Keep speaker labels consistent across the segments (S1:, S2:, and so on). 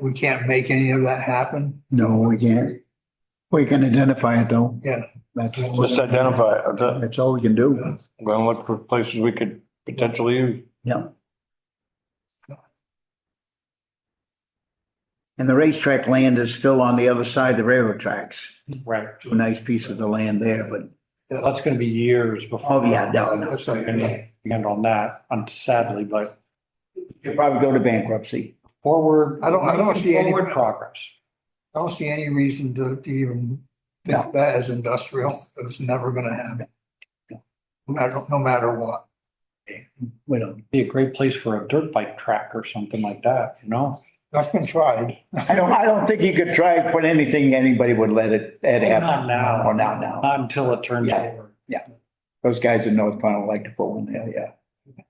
S1: we can't make any of that happen.
S2: No, we can't. We can identify it though.
S1: Yeah.
S2: That's,
S3: Just identify, it. That's it.
S2: that's all we can do.
S3: I'm gonna look for places we could potentially use.
S2: Yeah. And the racetrack land is still on the other side of the railroad tracks.
S3: Right.
S2: A nice piece of the land there, but,
S3: That's gonna be years before.
S2: oh yeah, no, no.
S1: That's like,
S3: End on that, un- sadly, but
S2: You'll probably go to bankruptcy.
S3: forward.
S1: I don't- I don't see any-
S3: Forward progress.
S1: I don't see any reason to to even think
S2: No.
S1: of that as industrial. It's never gonna happen. No matter, no matter what.
S2: We don't.
S3: Be a great place for a dirt bike track or something like that, you know?
S1: That's been tried.
S2: I don't, I don't think you could try and put anything, anybody would let it, it happen.
S3: Not now.
S2: Or not now.
S3: Not until it turns
S2: Yeah.
S3: over.
S2: Those guys in North Pownell like to put one there, yeah.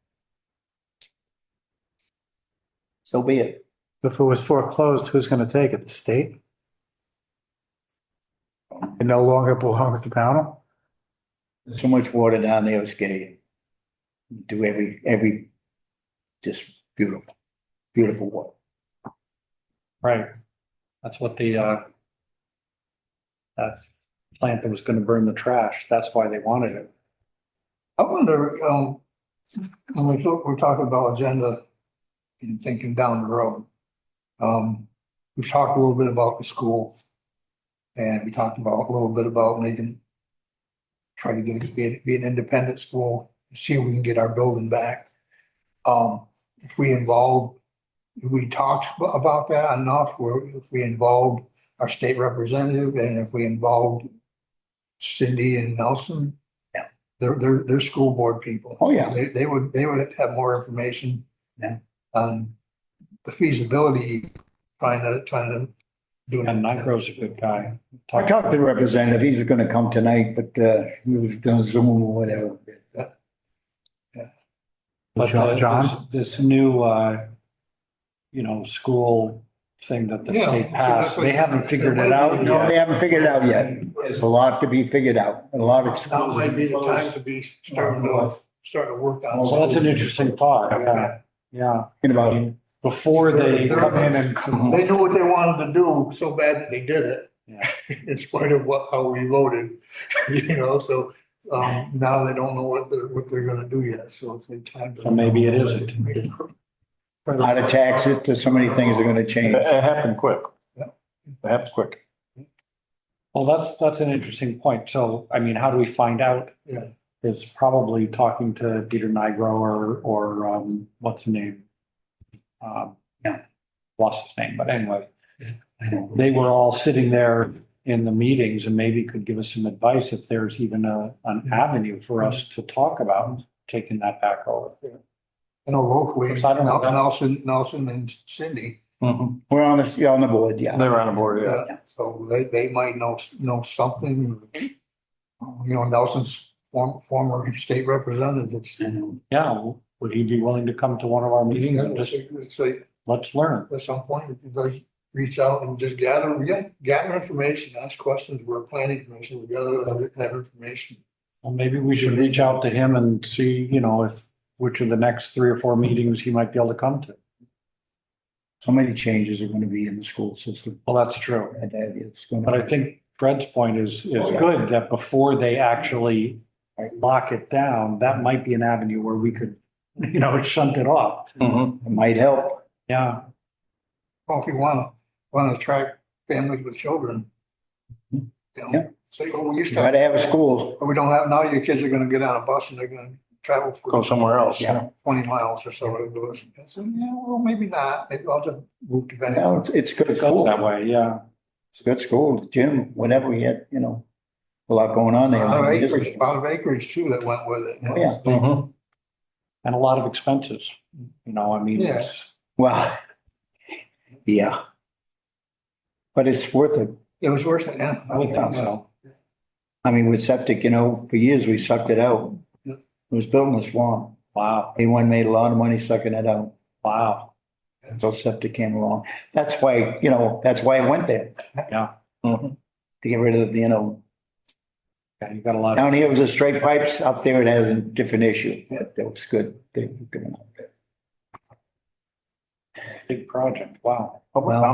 S2: So be it.
S4: If it was foreclosed, who's going to take it? The state? It no longer belongs to Pownell?
S2: There's so much water down there, it's getting, do every, every, just beautiful, beautiful water.
S3: Right. That's what the, uh, that plant that was gonna burn the trash, that's why they wanted it.
S1: I wonder, um, when we talk, we're talking about agenda and thinking down the road. Um, we talked a little bit about the school. And we talked about, a little bit about making, try to get, be, be an independent school, see if we can get our building back. Um, if we involved, if we talked ab- about that enough, where if we involved our state representative and if we involved Cindy and Nelson, they're, they're, they're school board people.
S2: Oh, yeah.
S1: They, they would, they would have more information.
S2: Yeah.
S1: On the feasibility, trying to, trying to do. it.
S3: And Nigro's a good guy.
S2: I talked to the representative, he's gonna come tonight, but, uh, he was gonna Zoom or whatever.
S3: But
S4: John-
S3: the-
S4: John?
S3: this- This new, uh, you know, school thing that the
S1: Yeah,
S3: state
S1: so that's
S3: passed,
S1: what-
S3: they haven't figured it out
S2: No,
S3: yet.
S2: they haven't figured it out yet. There's a lot to be figured out, a lot of.
S1: Now might be the time to be starting to, starting to work on.
S2: Well,
S3: Well, that's an interesting thought, yeah, yeah.
S2: Thinking
S3: I
S2: about,
S3: mean, Before they
S1: They're-
S3: come in and.
S1: They knew what they wanted to do so bad that they did it.
S3: Yeah.
S1: In spite of what, how we voted, you know, so, um, now they don't know what they're, what they're gonna do yet, so it's like time. to-
S3: So maybe it isn't.
S2: a lot of taxes, there's so many things that are gonna
S3: It
S2: change.
S3: it happened quick.
S1: Yeah.
S3: It happened quick. Well, that's, that's an interesting point. So, I mean, how do we find out?
S1: Yeah.
S3: It's probably talking to Peter Nigro or, or, um, what's the name? Um,
S2: Yeah.
S3: Lost his name, but anyway. They were all sitting there in the meetings and maybe could give us some advice if there's even a, an avenue for us to talk about taking that back over.
S1: You know, locally,
S3: Because I don't know.
S1: Nelson, Nelson and Cindy,
S3: Mm-hmm.
S2: We're on the, yeah, on the board, yeah.
S3: They're on board,
S1: yeah, so they, they might know, know something. Uh, You know, Nelson's form- former state representatives.
S2: And
S3: Yeah, would he be willing to come to one of our meetings and just
S1: It's like,
S3: let's learn.
S1: at some point, if you like, reach out and just gather, yeah, gather information, ask questions, we're a planning commission, we gather that- that information.
S3: Well, maybe we should reach out to him and see, you know, if, which of the next three or four meetings he might be able to come to.
S2: So many changes are gonna be in the school system.
S3: Well, that's true.
S2: And that is gonna-
S3: But I think Fred's point is,
S2: Oh,
S3: is
S2: yeah.
S3: good, that before they actually lock it down, that might be an avenue where we could, you know, shunt it off. Mm-hmm.
S2: It might help.
S3: Yeah,
S1: Well, if you wanna, wanna attract families with children. You
S2: Yeah.
S1: know, say, well, we used to,
S2: Try
S1: have-
S2: to have a school.
S1: but we don't have, now your kids are gonna get on a bus and they're gonna travel
S3: go
S1: for
S3: somewhere else.
S2: Yeah.
S1: twenty miles or so. to do it. I said, yeah, well, maybe not, maybe I'll just move to Bennington.
S2: Well, it's- It's good
S3: It goes
S2: school.
S3: that way, yeah.
S2: It's a good school, gym, whatever, we had, you know, a lot going on
S1: A
S2: there.
S1: lot of acreage, a lot of acreage too that went with it.
S2: Oh, yeah.
S3: And a lot of expenses, you know, I mean, it's,
S2: Well, yeah. But it's worth it.
S1: It was worth it, yeah.
S3: I would think so.
S2: I mean, with septic, you know, for years we sucked it out.
S1: Yeah.
S2: It was built in a swamp.
S3: Wow,
S2: Anyone made a lot of money sucking it out
S3: wow,
S2: until septic came along. That's why, you know, that's why I went there, Mm-hmm.
S3: yeah.
S2: to get rid of, you know,
S3: Yeah, you got a lot of
S2: down here it was a straight pipes, up there it had a different issue. That that was good. They were doing it.
S5: big project, wow.
S3: Well-